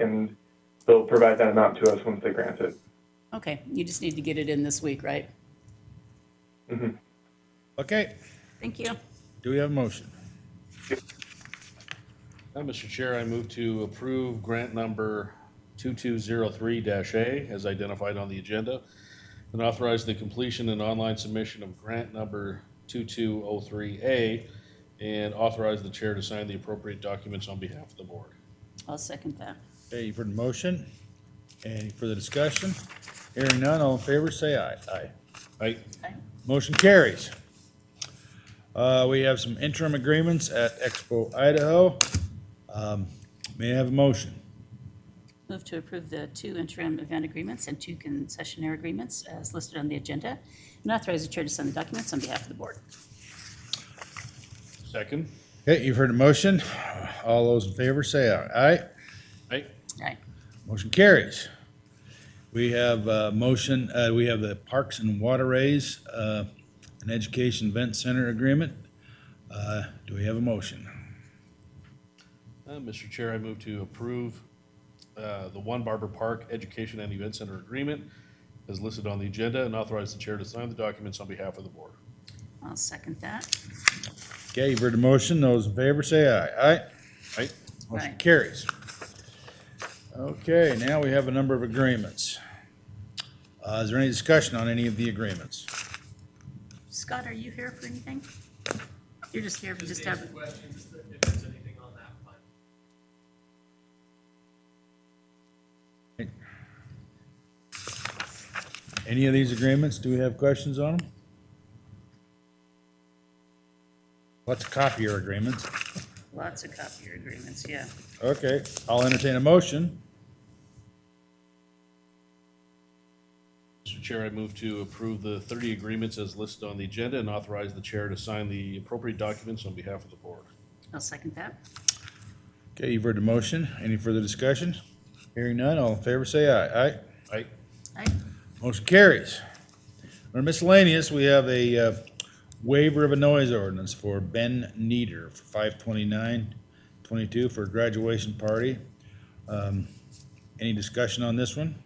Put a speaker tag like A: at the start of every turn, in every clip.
A: and they'll provide that amount to us once they grant it.
B: Okay, you just need to get it in this week, right?
C: Okay,
B: Thank you.
C: do we have a motion?
D: Uh, Mr. Chair, I move to approve grant number 2203-A as identified on the agenda and authorize the completion and online submission of grant number 2203A and authorize the chair to sign the appropriate documents on behalf of the board.
B: I'll second that.
C: Okay, you've heard the motion. Any further discussion? Hearing none, all in favor, say aye. Aye.
D: I,
C: Motion carries. Uh, we have some interim agreements at Expo Idaho. Um, May I have a motion?
B: Move to approve the two interim event agreements and two concessionaire agreements as listed on the agenda, and authorize the chair to sign the documents on behalf of the board.
D: second.
C: Okay, you've heard the motion. All those in favor, say aye. Aye.
D: I,
B: Aye.
C: Motion carries. We have a motion, uh, we have the Parks and Waterways, uh, an Education Event Center Agreement. Uh, do we have a motion?
D: Uh, Mr. Chair, I move to approve uh, the One Barber Park Education and Event Center Agreement as listed on the agenda and authorize the chair to sign the documents on behalf of the board.
B: I'll second that.
C: Okay, you've heard the motion. Those in favor say aye. Aye.
D: I,
C: Motion
B: Right.
C: carries. Okay, now we have a number of agreements. Uh, is there any discussion on any of the agreements?
B: Scott, are you here for anything? You're just here, for just have,
E: Just questions, just if there's anything on that one.
C: Any of these agreements, do we have questions on them? Let's copy your agreements.
B: lots of copier agreements, yeah.
C: Okay, I'll entertain a motion.
D: Mr. Chair, I move to approve the 30 agreements as listed on the agenda and authorize the chair to sign the appropriate documents on behalf of the board.
B: I'll second that.
C: Okay, you've heard the motion. Any further discussion? Hearing none, all in favor say aye. Aye.
D: I,
B: Aye.
C: Motion carries. Under miscellaneous, we have a uh, waiver of a noise ordinance for Ben Neder for five twenty-nine twenty-two for a graduation party. Um, Any discussion on this one?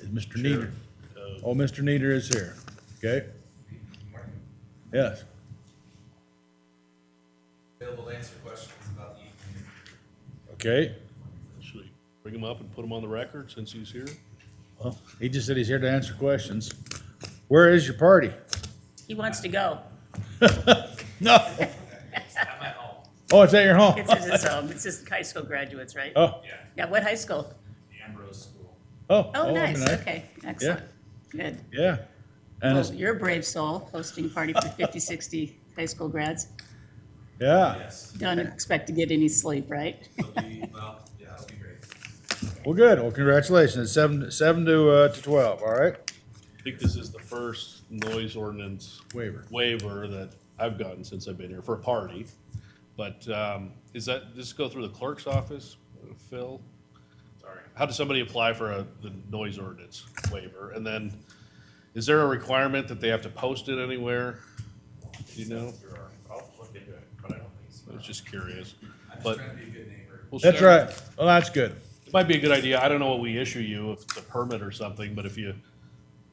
C: Is Mr. Neder? Oh, Mr. Neder is here. Okay? Yes.
E: Available to answer questions about the E evening.
C: Okay.
D: should we bring him up and put him on the record since he's here?
C: Well, he just said he's here to answer questions. Where is your party?
B: He wants to go.
C: No.
E: At my home,
C: Oh, it's at your home.
B: It's his, it's, um, it's his high school graduates, right?
C: Oh,
E: yeah,
B: Yeah, what high school?
E: the Ambrose School.
C: oh.
B: Oh,
C: I
B: nice,
C: mean, I-
B: okay, excellent, good.
C: Yeah. And
B: Well,
C: it's,
B: you're a brave soul, hosting a party for 50, 60 high school grads.
C: yeah.
E: Yes,
B: Don't expect to get any sleep, right?
E: it'll be, well, yeah, it'll be great.
C: Well, good. Well, congratulations. It's Seven, seven to, uh, to twelve, all right?
D: I think this is the first noise ordinance
C: Waiver.
D: waiver that I've gotten since I've been here for a party. But um, is that, does this go through the clerk's office, Phil?
E: Sorry.
D: How does somebody apply for a, the noise ordinance waiver? And then, is there a requirement that they have to post it anywhere? Do you know?
E: There are- I'll look into it, but I don't think so.
D: I was just curious.
E: I'm just
D: But
E: trying to be a good neighbor.
D: we'll
C: That's
D: share-
C: right. Well, that's good.
D: It might be a good idea. I don't know what we issue you, if it's a permit or something, but if you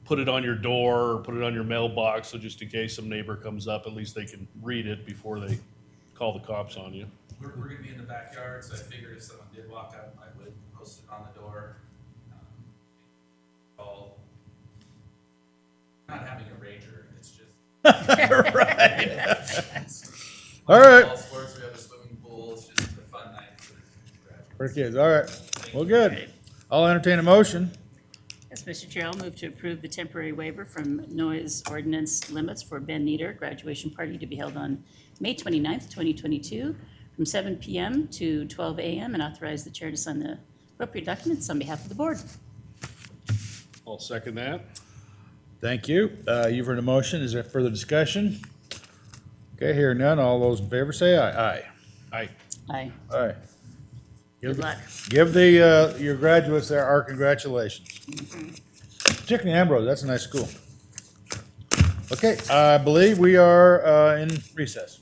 D: put it on your door or put it on your mailbox, so just in case some neighbor comes up, at least they can read it before they call the cops on you.
E: We're, we're gonna be in the backyard, so I figured if someone did walk up, I would post it on the door. Um, I'll, not having a ranger, it's just.
C: All right.
E: All sports, we have a swimming pool, it's just a fun night for the graduates.
C: For kids, all right. Well, good. I'll entertain a motion.
B: Yes, Mr. Chair, I'll move to approve the temporary waiver from noise ordinance limits for Ben Nieder graduation party to be held on May 29th, 2022, from 7 PM to 12 AM, and authorize the chair to sign the appropriate documents on behalf of the board.
D: I'll second that.
C: Thank you. Uh, you've heard a motion. Is there further discussion? Okay, hearing none. All those in favor say aye.
D: Aye.
B: Aye.
C: Aye. Aye.
B: Good luck.
C: Give the, uh, your graduates there our congratulations.
B: Mm-hmm.
C: Particularly Ambrose, that's a nice school. Okay, I believe we are, uh, in recess.